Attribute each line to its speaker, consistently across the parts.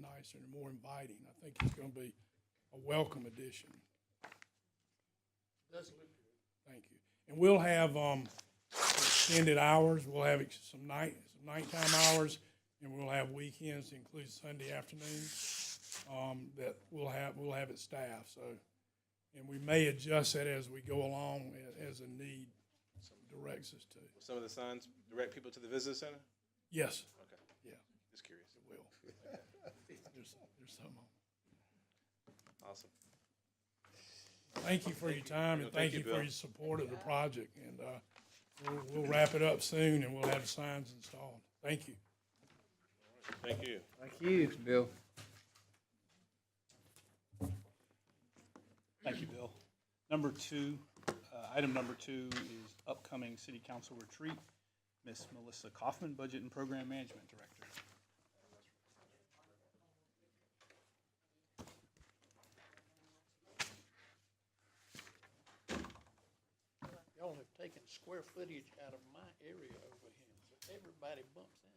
Speaker 1: nicer and more inviting. I think it's going to be a welcome addition. Thank you. And we'll have um, extended hours, we'll have ex- some night, some nighttime hours, and we'll have weekends, including Sunday afternoons, um, that we'll have, we'll have it staffed, so. And we may adjust that as we go along, a- as a need directs us to.
Speaker 2: Some of the signs direct people to the visitor center?
Speaker 1: Yes,
Speaker 2: Okay,
Speaker 1: yeah,
Speaker 2: just curious.
Speaker 1: it will. There's, there's some.
Speaker 2: Awesome.
Speaker 1: Thank you for your time and thank
Speaker 2: Thank you,
Speaker 1: you for
Speaker 2: Bill.
Speaker 1: your support of the project. And, uh, we'll, we'll wrap it up soon and we'll have the signs installed. Thank you.
Speaker 2: Thank you.
Speaker 3: Thank you, Bill.
Speaker 4: Thank you, Bill. Number two, uh, item number two is upcoming city council retreat. Miss Melissa Kaufman, Budget and Program Management Director.
Speaker 5: Y'all have taken square footage out of my area over here, so everybody bumps in.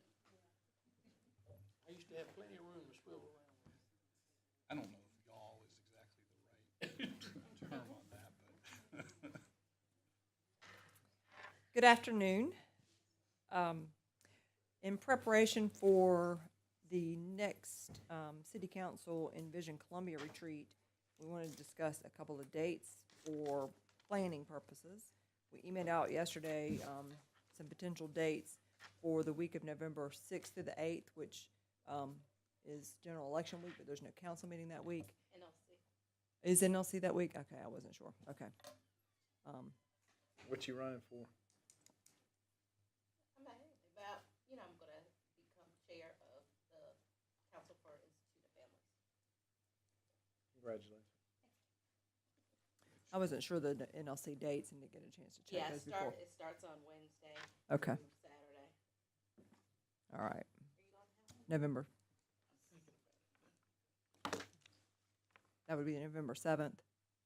Speaker 5: I used to have plenty of room to swivel around.
Speaker 4: I don't know if y'all is exactly the right term on that, but
Speaker 6: Good afternoon. Um, In preparation for the next um, City Council Envision Columbia retreat, we want to discuss a couple of dates for planning purposes. We emailed out yesterday um, some potential dates for the week of November 6th through the 8th, which um, is general election week, but there's no council meeting that week. NLC. Is NLC that week? Okay, I wasn't sure. Okay. Um,
Speaker 3: What you running for?
Speaker 7: I'm not hearing about, you know, I'm gonna become chair of the Council for Institute of Families.
Speaker 3: Congratulations.
Speaker 6: I wasn't sure the NLC dates and didn't get a chance to
Speaker 7: Yeah,
Speaker 6: check
Speaker 7: it
Speaker 6: those before.
Speaker 7: start, it starts on Wednesday.
Speaker 6: Okay,
Speaker 7: through Saturday.
Speaker 6: all right. November. That would be November seventh,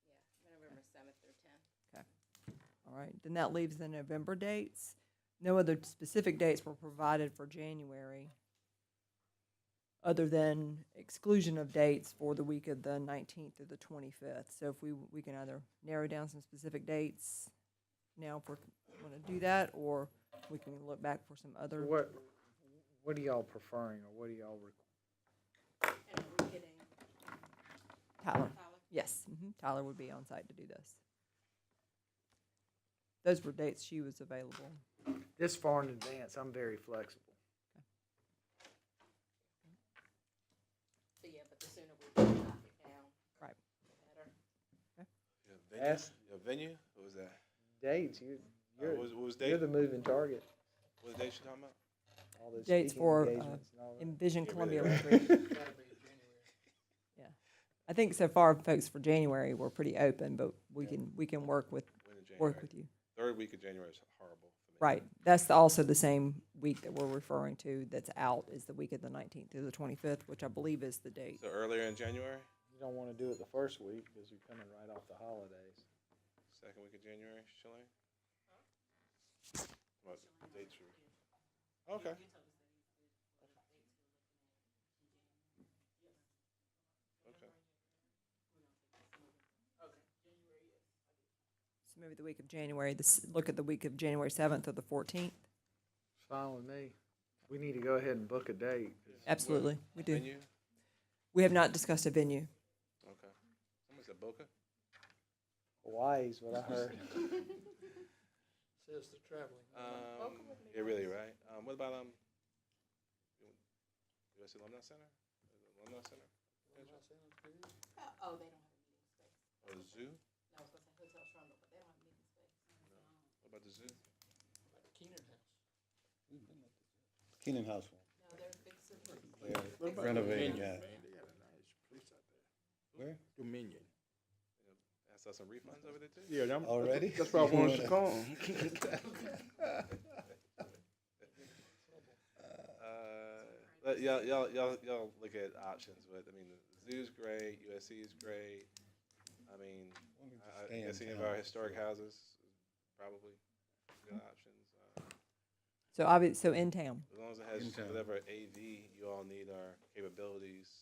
Speaker 7: Yeah, November seventh through tenth.
Speaker 6: all right. Then that leaves the November dates. No other specific dates were provided for January, other than exclusion of dates for the week of the nineteenth through the twenty-fifth. So if we, we can either narrow down some specific dates now if we want to do that, or we can look back for some other.
Speaker 3: What, what are y'all preferring or what are y'all requ-
Speaker 7: And we're getting
Speaker 6: Tyler.
Speaker 7: Tyler.
Speaker 6: Yes, mhm, Tyler would be on site to do this. Those were dates she was available.
Speaker 3: This far in advance, I'm very flexible.
Speaker 7: So, yeah, but the sooner we can knock it down,
Speaker 6: Right.
Speaker 7: the better.
Speaker 3: Ask-
Speaker 2: Your venue? What was that?
Speaker 3: Dates, you,
Speaker 2: Uh,
Speaker 3: you're,
Speaker 2: What was, what was date?
Speaker 3: you're the moving target.
Speaker 2: What date you talking about?
Speaker 3: All those
Speaker 6: Dates
Speaker 3: speaking
Speaker 6: for, uh,
Speaker 3: engagements and all that.
Speaker 6: Envision
Speaker 2: Get rid
Speaker 6: Columbia
Speaker 2: of
Speaker 6: retreat. Yeah, I think so far, folks, for January, we're pretty open, but we can, we can work with,
Speaker 2: When in
Speaker 6: work
Speaker 2: January?
Speaker 6: with you.
Speaker 2: Third week of January is horrible for me.
Speaker 6: Right, that's the- also the same week that we're referring to that's out is the week of the nineteenth through the twenty-fifth, which I believe is the date.
Speaker 2: So earlier in January,
Speaker 3: You don't wanna do it the first week because you're coming right off the holidays.
Speaker 2: second week of January, Shalane? What dates were? Okay. Okay.
Speaker 6: So maybe the week of January, this, look at the week of January seventh or the fourteenth.
Speaker 3: It's fine with me. We need to go ahead and book a date. 'cause
Speaker 6: Absolutely, we do.
Speaker 2: Venue?
Speaker 6: We have not discussed a venue.
Speaker 2: Okay. Someone said Boca?
Speaker 3: Hawaii's what I heard.
Speaker 5: Says the traveling.
Speaker 2: Um, yeah, really, right? Um, what about, um, US Alumni Center? Alumni Center?
Speaker 7: Uh, Oh, they don't have a meeting space.
Speaker 2: Or the zoo?
Speaker 7: No, I was gonna say Hotel Trumbull, but they don't have a meeting space.
Speaker 2: What about the zoo?
Speaker 5: Keenan House.
Speaker 8: Keenan House
Speaker 7: No, they're fixing it.
Speaker 8: one. Renovating, yeah. Where?
Speaker 9: Dominion.
Speaker 2: I saw some refunds over there too.
Speaker 9: Yeah, I'm,
Speaker 8: Already?
Speaker 9: that's why I wanted to come.
Speaker 2: Uh, but y'all, y'all, y'all, y'all look at options, but I mean, the zoo's great, USC is great. I mean, I- I guess any of our historic houses is probably good options. Uh,
Speaker 6: So obvi- so in town.
Speaker 2: As long as it has
Speaker 8: In town.
Speaker 2: whatever AV you all need our capabilities